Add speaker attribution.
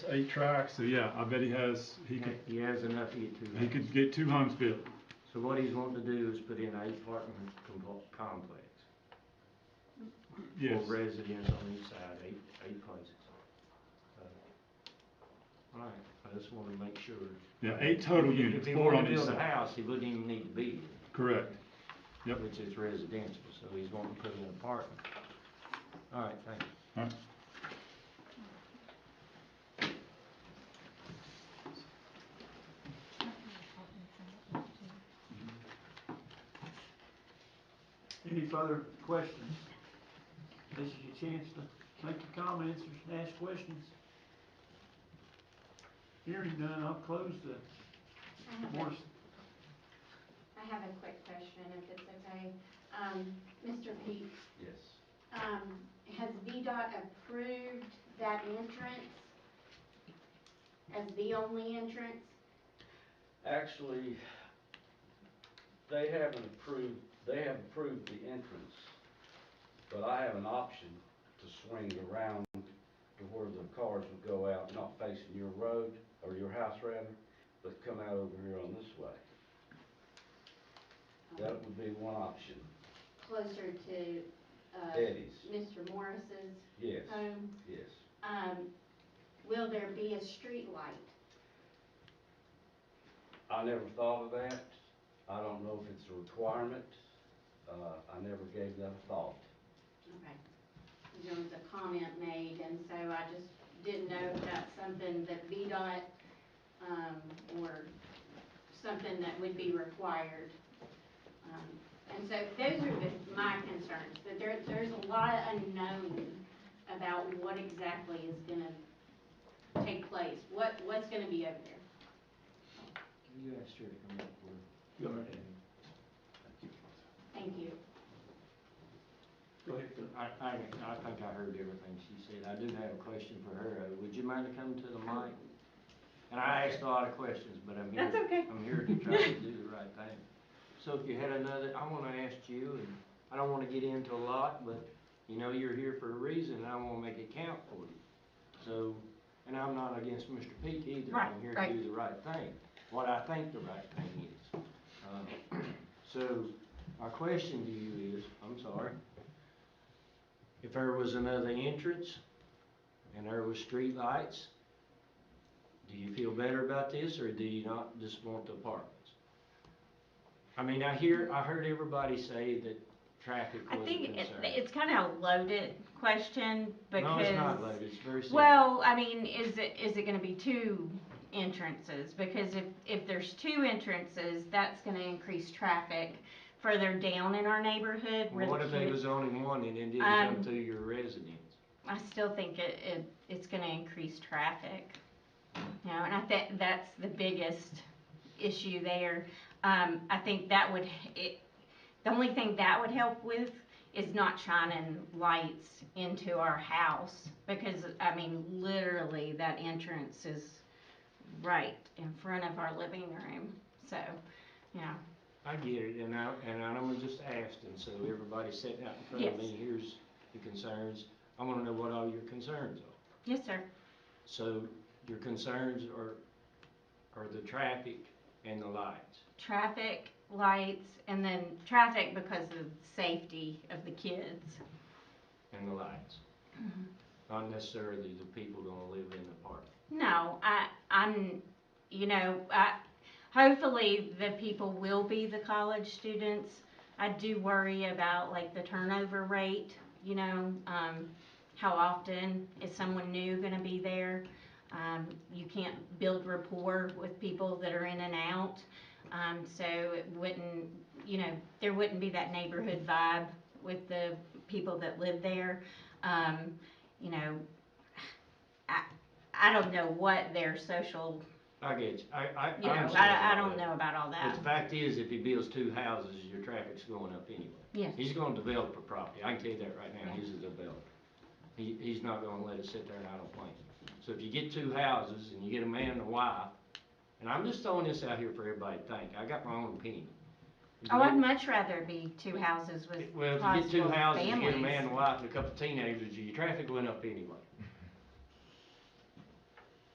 Speaker 1: eight tracks, so yeah, I bet he has, he could,
Speaker 2: He has enough to get two
Speaker 1: he
Speaker 2: lanes.
Speaker 1: could get two homes built.
Speaker 2: So what he's wanting to do is put in eight apartment compo- complex.
Speaker 1: Yes,
Speaker 2: For residents on each side, eight, eight places. Alright, I just wanna make sure.
Speaker 1: yeah, eight total
Speaker 2: If he-
Speaker 1: units,
Speaker 2: If he
Speaker 1: four
Speaker 2: wanted
Speaker 1: on
Speaker 2: to
Speaker 1: each
Speaker 2: build a
Speaker 1: side,
Speaker 2: house, he wouldn't even need to be here.
Speaker 1: correct. Yep.
Speaker 2: Which is residential, so he's wanting to put in an apartment. Alright, thank you.
Speaker 1: Alright.
Speaker 2: Mm-hmm.
Speaker 3: Any further questions? This is your chance to make your comments or ask questions. Hearing done, I'll close
Speaker 4: I
Speaker 3: the
Speaker 4: have
Speaker 3: board.
Speaker 4: a- I have a quick question, if it's okay. Um, Mr. Pete,
Speaker 2: Yes.
Speaker 4: um, has VDOT approved that entrance as the only entrance?
Speaker 5: Actually, they haven't approved, they have approved the entrance, but I have an option to swing around to where the cars would go out, not facing your road, or your house rather, but come out over here on this way. That would be one option.
Speaker 4: Closer to, uh,
Speaker 5: Eddie's,
Speaker 4: Mr. Morris's
Speaker 5: yes,
Speaker 4: home?
Speaker 5: yes.
Speaker 4: Um, will there be a street light?
Speaker 5: I never thought of that. I don't know if it's a requirement. Uh, I never gave that a thought.
Speaker 4: Okay. There was a comment made, and so I just didn't know if that's something that VDOT, um, or something that would be required. Um, And so those are the- my concerns, that there, there's a lot unknown about what exactly is gonna take place, what, what's gonna be over there.
Speaker 2: You asked her to come up with.
Speaker 3: Go ahead.
Speaker 4: Thank you.
Speaker 3: Go ahead, Phil.
Speaker 2: I, I, I think I heard everything she said. I do have a question for her. Uh, Would you mind to come to the mic? And I asked a lot of questions, but I'm here.
Speaker 4: That's okay.
Speaker 2: I'm here to try to do the right thing. So if you had another, I wanna ask you, and I don't wanna get into a lot, but you know, you're here for a reason, and I wanna make it count for you. So, and I'm not against Mr. Peak either.
Speaker 6: Right,
Speaker 2: I'm here
Speaker 6: right.
Speaker 2: to do the right thing, what I think the right thing is. Uh, So, my question to you is, I'm sorry, if there was another entrance and there was street lights, do you feel better about this or do you not just want the apartments? I mean, I hear, I heard everybody say that traffic
Speaker 6: I
Speaker 2: was a
Speaker 6: think it,
Speaker 2: concern.
Speaker 6: it's kind of a loaded question because.
Speaker 2: No, it's not loaded, it's very simple.
Speaker 6: Well, I mean, is it, is it gonna be two entrances? Because if, if there's two entrances, that's gonna increase traffic further down in our neighborhood
Speaker 2: Well,
Speaker 6: where the
Speaker 2: What if there
Speaker 6: commu-
Speaker 2: was only one and it didn't come
Speaker 6: Um,
Speaker 2: through your residence?
Speaker 6: I still think it, it, it's gonna increase traffic. You know, and I think that's the biggest issue there. Um, I think that would, h- it, the only thing that would help with is not shining lights into our house. Because, I mean, literally that entrance is right in front of our living room, so, you know.
Speaker 2: I get it, and I, and I'm gonna just ask, and so everybody sitting out in front of
Speaker 6: Yes.
Speaker 2: me, here's the concerns. I wanna know what all your concerns are.
Speaker 6: Yes, sir.
Speaker 2: So your concerns are, are the traffic and the lights.
Speaker 6: Traffic, lights, and then traffic because of safety of the kids.
Speaker 2: And the lights.
Speaker 6: Mm-hmm.
Speaker 2: Not necessarily the people gonna live in the park.
Speaker 6: No, I, I'm, you know, I, hopefully the people will be the college students. I do worry about like the turnover rate, you know, um, how often is someone new gonna be there? Um, you can't build rapport with people that are in and out. Um, so it wouldn't, you know, there wouldn't be that neighborhood vibe with the people that live there. Um, you know, I don't know what their social,
Speaker 2: I get you, I, I, I
Speaker 6: you know,
Speaker 2: understand
Speaker 6: I, I
Speaker 2: all
Speaker 6: don't
Speaker 2: that.
Speaker 6: know about all
Speaker 2: But
Speaker 6: that.
Speaker 2: the fact is, if he builds two houses, your traffic's going up anyway.
Speaker 6: Yes.
Speaker 2: He's gonna develop a property, I can tell you that right now, he's a developer. He, he's not gonna let it sit there and idle plane. So if you get two houses and you get a man and a wife, and I'm just throwing this out here for everybody to think, I got my own opinion.
Speaker 6: Oh, I'd much rather be two houses with
Speaker 2: Well, if you get two
Speaker 6: possible
Speaker 2: houses, you get a man
Speaker 6: families.
Speaker 2: and a wife and a couple of teenagers, your traffic went up anyway.